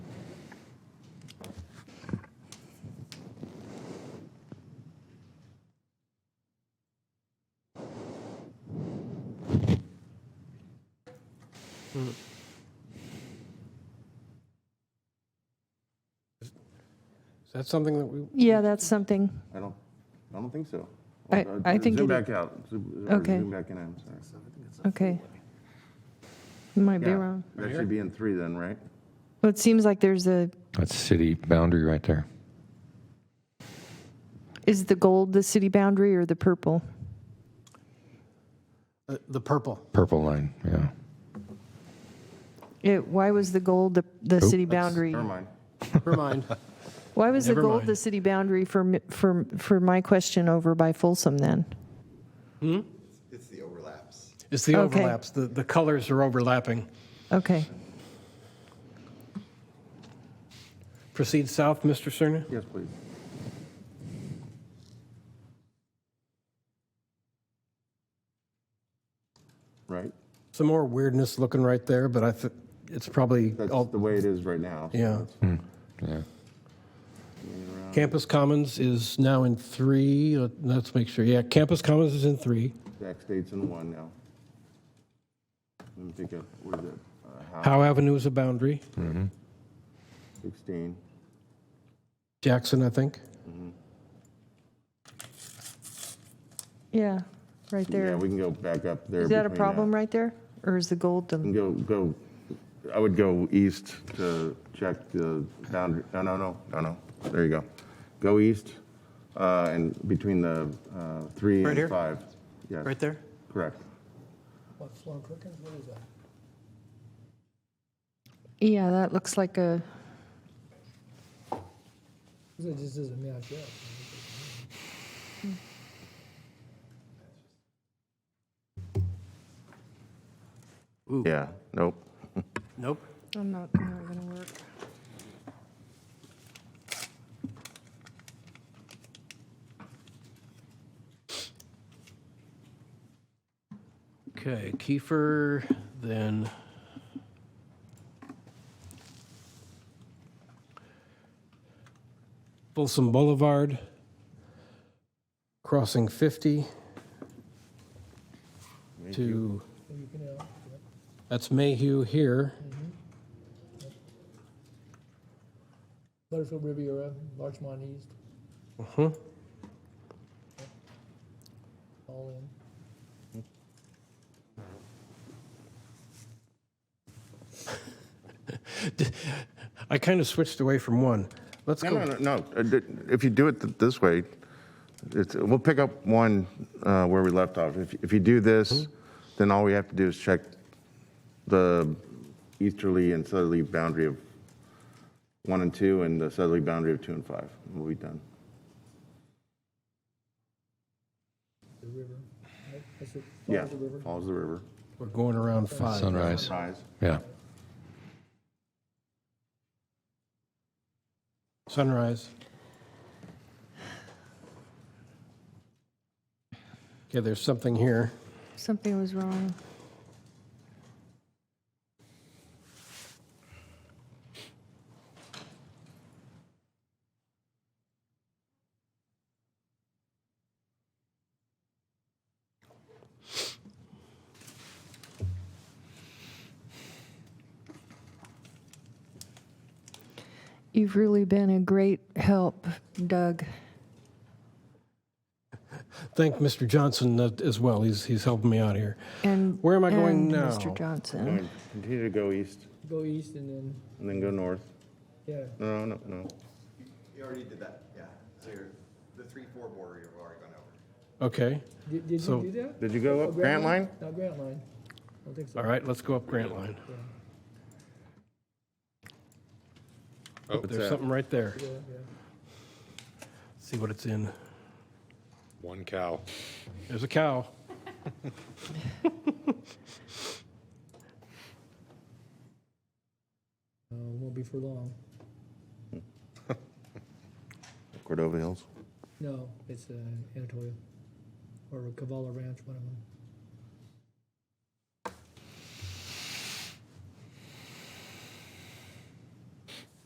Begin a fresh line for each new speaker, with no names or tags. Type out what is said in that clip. Is that something that we,
Yeah, that's something.
I don't, I don't think so.
I- I think
Zoom
it-
back out. Zoom or
Okay.
zoom back in, I'm sorry.
Okay. Might be
Yeah,
wrong.
That should be in three then, right?
Well, it seems like there's a,
That's city boundary right there.
is the gold the city boundary or the purple?
uh, the purple?
Purple line, yeah.
It, why was the gold the, the city boundary?
Never mind.
Never mind.
Why was the
Never
gold
mind.
the city boundary for, mi- for, for my question over by Folsom then?
It's the overlaps.
It's the
Okay.
overlaps, the, the colors are overlapping.
Okay.
Proceed south, Mr. Cerner?
Yes, please. Right?
Some more weirdness looking right there, but I think it's probably
That's
all
the way it is right now. so
Oh. Yeah.
Yeah.
Campus Commons is now in three. Let- Let's make sure. Yeah, Campus Commons is in three.
Zach states in one now. Let me think of, what is it? Uh, Howe,
Howe Avenue is a boundary.
Hmm. 16.
Jackson, I think.
Yeah, right
Yeah,
there.
we can go back up there.
Is that a
between Mm.
problem right there? Or is the gold
You
the,
can Go, go, I would go east to check the boundary, no, no, no, no, no, there you go. Go east, uh, and between the, uh, three
Right here?
and five. Yes,
Right there?
Correct.
yeah, that looks like a,
It just doesn't match up.
Yeah, nope.
Nope.
I'm not, not going to work.
Okay, Kiefer, then. Folsom Boulevard, crossing 50 to, that's Mayhew here.
Butterfield Riviera, Larchmont East,
Mhm.
all in.
I kind of switched away from one. Let's
No, no,
go,
no, no, uh, th- if you do it th- this way, it's, we'll pick up one, uh, where we left off. If, if you do this, then all we have to do is check the easterly and southerly boundary of one and two, and the southerly boundary of two and five, and we'll be done.
the river, right? That's what
Yeah,
follows the river.
follows the river.
we're going around five.
Sunrise,
Sunrise.
yeah.
Sunrise. Okay, there's something here.
Something was wrong. You've really been a great help, Doug.
Thank Mr. Johnson uh, as well. He's, he's helping me out here.
And
Where am I going
and
now?
Mr. Johnson.
And Continue to go east,
Go east and then,
and then go north.
yeah,
No, no, no.
You already did that, yeah. So you're, the three, four border you've already gone over.
Okay,
did, did
So-
you do that?
Did you go
Oh,
up Grant Line?
Not Grant Line, I don't think so.
all right, let's go up Grant Line. Oh, there's something right there.
Yeah, yeah.
See what it's in.
One cow.
There's a cow.
Uh, won't be for long.
Cordova Hills.
No, it's, uh, Anatolia, or Cavallo Ranch, one of them.